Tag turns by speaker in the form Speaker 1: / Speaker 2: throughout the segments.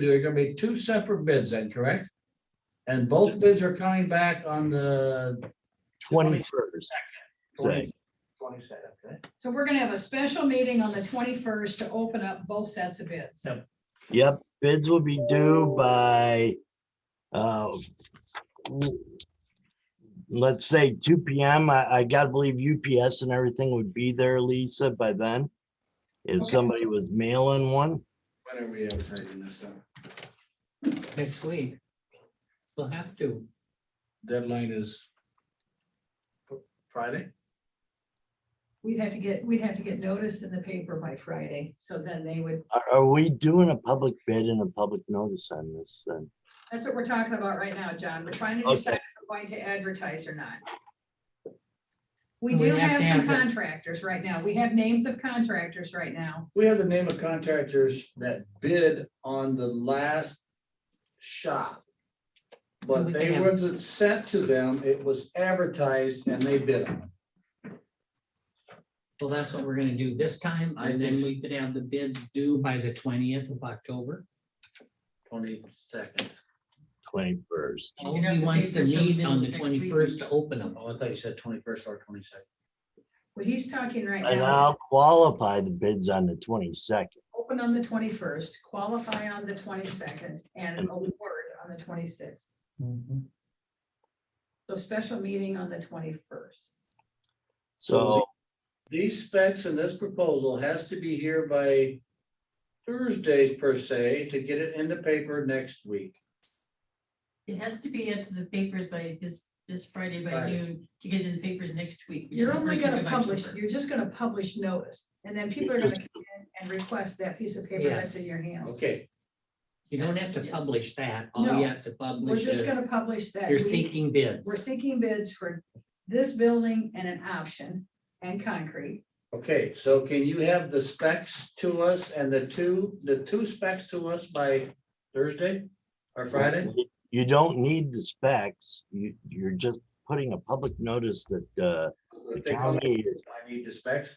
Speaker 1: There are gonna be two separate bids then, correct? And both bids are coming back on the
Speaker 2: twenty-first.
Speaker 1: twenty. Twenty second, okay?
Speaker 3: So we're gonna have a special meeting on the twenty-first to open up both sets of bids.
Speaker 4: Yep.
Speaker 2: Yep, bids will be due by, uh, w- let's say two PM. I, I gotta believe UPS and everything would be there, Lisa, by then. If
Speaker 3: Okay.
Speaker 2: somebody was mailing one,
Speaker 1: When are we advertising this stuff?
Speaker 4: next week. We'll have to.
Speaker 1: Deadline is Friday?
Speaker 3: We'd have to get, we'd have to get notice in the paper by Friday, so then they would,
Speaker 2: are, are we doing a public bid and a public notice on this then?
Speaker 3: that's what we're talking about right now, John. We're trying to
Speaker 2: Okay.
Speaker 3: decide if we're going to advertise or not. We
Speaker 4: We
Speaker 3: do have
Speaker 4: have to
Speaker 3: some
Speaker 4: have the-
Speaker 3: contractors right now. We have names of contractors right now.
Speaker 1: We have the name of contractors that bid on the last shop. But
Speaker 4: We can
Speaker 1: they
Speaker 4: have-
Speaker 1: wasn't sent to them, it was advertised and they bid on
Speaker 4: Well, that's what we're gonna do this time,
Speaker 1: I
Speaker 4: and then
Speaker 1: think-
Speaker 4: we could have the bids due by the twentieth of October.
Speaker 1: twenty second.
Speaker 2: Twenty-first.
Speaker 3: And you'd have
Speaker 4: Nobody
Speaker 3: to
Speaker 4: wants
Speaker 3: pay
Speaker 4: to
Speaker 3: for some
Speaker 4: meet
Speaker 3: bill
Speaker 4: on the
Speaker 3: next week.
Speaker 4: twenty-first to open them.
Speaker 1: Oh, I thought you said twenty first or twenty second.
Speaker 3: What he's talking right
Speaker 2: And
Speaker 3: now, is
Speaker 2: I'll qualify the bids on the twenty-second.
Speaker 3: open on the twenty-first, qualify on the twenty-second, and award on the twenty-sixth.
Speaker 4: Mm-hmm.
Speaker 3: So special meeting on the twenty-first.
Speaker 2: So
Speaker 1: These specs in this proposal has to be here by Thursdays per se to get it in the paper next week.
Speaker 5: It has to be into the papers by this, this Friday by
Speaker 1: Friday.
Speaker 5: noon to get it in the papers next week. which is
Speaker 3: You're
Speaker 5: the
Speaker 3: only
Speaker 5: first week
Speaker 3: gonna
Speaker 5: of
Speaker 3: publish,
Speaker 5: October.
Speaker 3: you're just gonna publish notice, and then people are gonna
Speaker 2: Because-
Speaker 3: come in and request that piece of paper that's in
Speaker 4: Yes.
Speaker 3: your hand.
Speaker 1: Okay,
Speaker 4: You don't have to
Speaker 5: Yes.
Speaker 4: publish that. All
Speaker 3: No.
Speaker 4: you have to
Speaker 3: We're
Speaker 4: publish
Speaker 3: just
Speaker 4: is
Speaker 3: gonna publish that.
Speaker 4: you're
Speaker 3: we-
Speaker 4: seeking
Speaker 3: We're
Speaker 4: bids.
Speaker 3: seeking bids for this building and an option and concrete.
Speaker 1: okay, so can you have the specs to us and the two, the two specs to us by Thursday or Friday?
Speaker 2: You don't need the specs. You, you're just putting a public notice that, uh, the county is,
Speaker 1: I need the specs.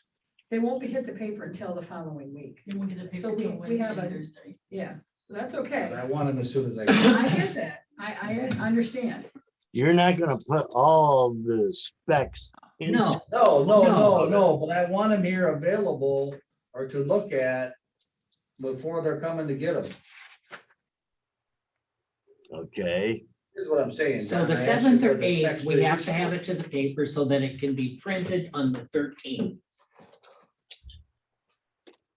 Speaker 3: They won't be hit the paper until the following week.
Speaker 5: Then we'll get the paper
Speaker 3: So we-
Speaker 5: till
Speaker 3: we have
Speaker 5: Wednesday,
Speaker 3: a-
Speaker 5: Thursday.
Speaker 3: Yeah, that's
Speaker 1: but
Speaker 3: okay.
Speaker 1: I want them as soon as I. can.
Speaker 3: I get that. I, I understand.
Speaker 2: you're not gonna put all the specs. in.
Speaker 4: No,
Speaker 1: No, no, no,
Speaker 4: No.
Speaker 1: no, but I want them here available or to look at before they're coming to get them,
Speaker 2: Okay,
Speaker 1: is what I'm saying.
Speaker 4: so
Speaker 1: John. I
Speaker 4: the
Speaker 1: asked you
Speaker 4: seventh
Speaker 1: for
Speaker 4: or
Speaker 1: the
Speaker 4: eighth,
Speaker 1: specs
Speaker 4: we
Speaker 1: for
Speaker 4: have
Speaker 1: each
Speaker 4: to have it to the paper so that it can be printed on the thirteenth.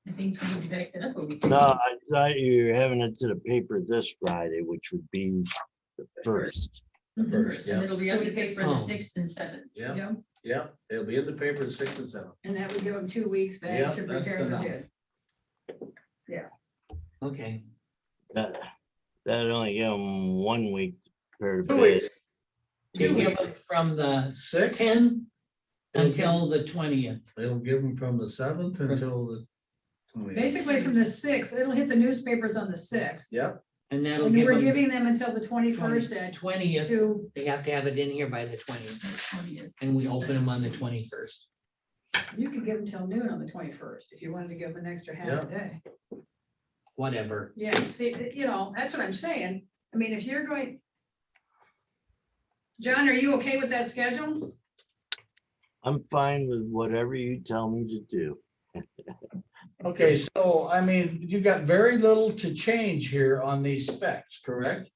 Speaker 5: I think we need to back that up a week.
Speaker 2: no, I thought you were having it to the paper this Friday, which would be the first.
Speaker 1: First, yeah.
Speaker 5: And it'll be
Speaker 3: So
Speaker 5: on
Speaker 3: we
Speaker 5: the
Speaker 3: get
Speaker 5: paper on the
Speaker 4: some.
Speaker 5: sixth and seventh.
Speaker 1: Yeah.
Speaker 3: Yeah,
Speaker 1: Yeah, it'll be in the paper at six and seven.
Speaker 3: and that would give them two weeks
Speaker 1: Yeah,
Speaker 3: then to
Speaker 4: that's
Speaker 3: prepare the
Speaker 4: enough.
Speaker 3: bid.
Speaker 4: Okay,
Speaker 2: That, that only give them one week per
Speaker 1: Two weeks.
Speaker 2: bid.
Speaker 4: Give
Speaker 3: weeks.
Speaker 4: them from the
Speaker 1: Uh, Six,
Speaker 4: ten
Speaker 1: It'll
Speaker 4: until the twentieth.
Speaker 1: they'll give them from the seventh until the. 20th.
Speaker 3: Basically from the sixth, it'll hit the newspapers on the sixth.
Speaker 1: Yep,
Speaker 4: And that'll
Speaker 3: And
Speaker 4: give
Speaker 3: we're
Speaker 4: them
Speaker 3: giving them until the twenty-first at
Speaker 4: twentieth,
Speaker 3: two.
Speaker 4: they have to have it in here by the twentieth,
Speaker 5: twentieth.
Speaker 4: and we open them on the twenty-first.
Speaker 3: You could give them till noon on the twenty-first if you wanted to give them an extra half
Speaker 1: Yeah.
Speaker 3: a day.
Speaker 4: Whatever,
Speaker 3: Yeah, see, you know, that's what I'm saying. I mean, if you're going. John, are you okay with that schedule?
Speaker 2: I'm fine with whatever you tell me to do.
Speaker 1: okay, so I mean, you got very little to change here on these specs, correct?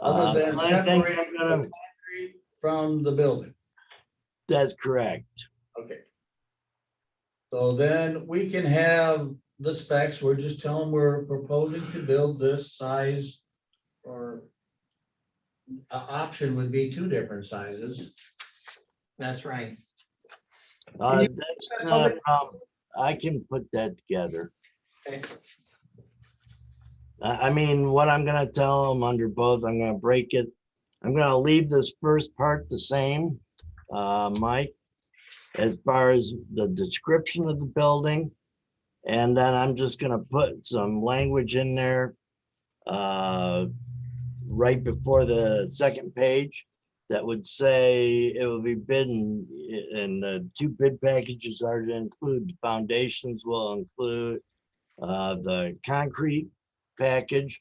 Speaker 2: Uh,
Speaker 1: Other than
Speaker 2: I think
Speaker 1: separating
Speaker 2: I'm
Speaker 1: the
Speaker 2: gonna-
Speaker 1: concrete from the building.
Speaker 2: That's correct.
Speaker 1: Okay. So then we can have the specs, we're just telling we're proposing to build this size or a option would be two different sizes.
Speaker 4: that's right.
Speaker 2: Uh,
Speaker 1: you-
Speaker 2: that's
Speaker 1: That's
Speaker 2: not a
Speaker 1: already-
Speaker 2: problem. I can put that together.
Speaker 1: Okay.
Speaker 2: I, I mean, what I'm gonna tell them under both, I'm gonna break it. I'm gonna leave this first part the same, uh, Mike, as far as the description of the building. And then I'm just gonna put some language in there, uh, right before the second page that would say it will be bidden, and the two bid packages are to include, foundations will include uh, the concrete package